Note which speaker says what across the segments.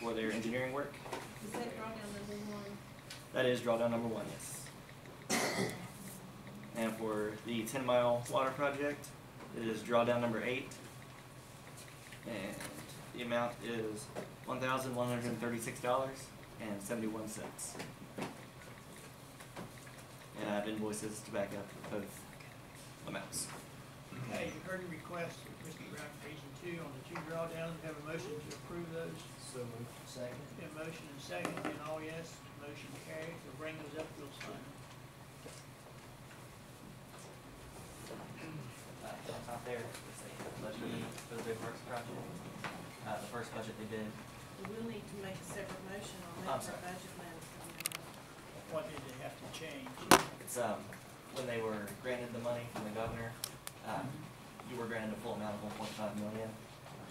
Speaker 1: for their engineering work.
Speaker 2: Is that drawdown number one?
Speaker 1: That is drawdown number one, yes. And for the ten mile water project, it is drawdown number eight. And the amount is one thousand one hundred and thirty-six dollars and seventy-one cents. And I have invoices to back up both amounts.
Speaker 3: Okay, you've heard the request of Whiskey Rock Region Two on the two drawdowns, have a motion to approve those.
Speaker 4: So moved. Second.
Speaker 3: Been a motion and second, and all yes, motion carries, we'll bring those up, we'll sign them.
Speaker 5: uh, that's out there, it's a budget for the big works project. Uh, the first budget they did,
Speaker 2: We'll need to make a separate motion on
Speaker 5: I'm
Speaker 2: that for
Speaker 5: sorry.
Speaker 2: budget management.
Speaker 3: What did they have to change?
Speaker 5: it's, um, when they were granted the money from the governor, uh, you were granted a full amount of one point five million,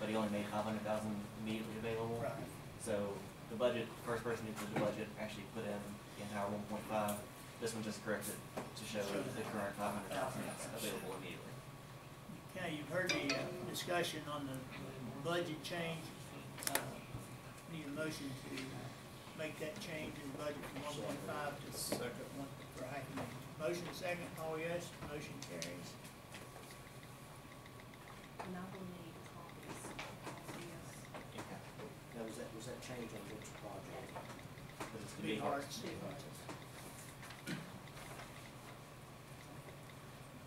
Speaker 5: but he only made five hundred thousand immediately available.
Speaker 3: Right,
Speaker 5: So the budget, first person who did the budget actually put in the entire one point five. This one just corrected to show the current five hundred thousand that's available immediately.
Speaker 3: okay, you've heard the, uh, discussion on the the budget change, uh, need a motion to make that change in the budget from one point five to. Second. Right, motion second, all yes, motion carries.
Speaker 2: And I will need copies of this.
Speaker 4: Now, was that, was that change on which project?
Speaker 5: But it's gonna be
Speaker 3: Big
Speaker 5: hard.
Speaker 3: hearts.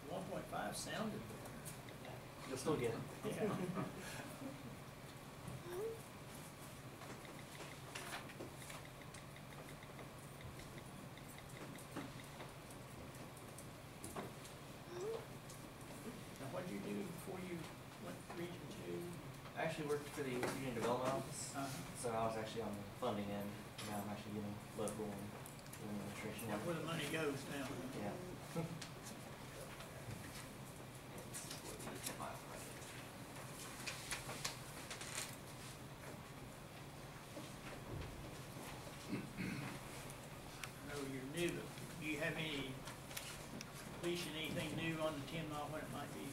Speaker 3: One point five sounded
Speaker 5: You'll still get it.
Speaker 3: better. Yeah. Now, what'd you do before you went to region two?
Speaker 5: I actually worked for the Union Development Office.
Speaker 3: Uh,
Speaker 5: So I was actually on the funding end, now I'm actually getting local and and administration.
Speaker 3: Now, where the money goes now?
Speaker 5: Yeah. It's for the 10 mile project.
Speaker 3: I know you're new, but do you have any completion, anything new on the ten mile, what it might be?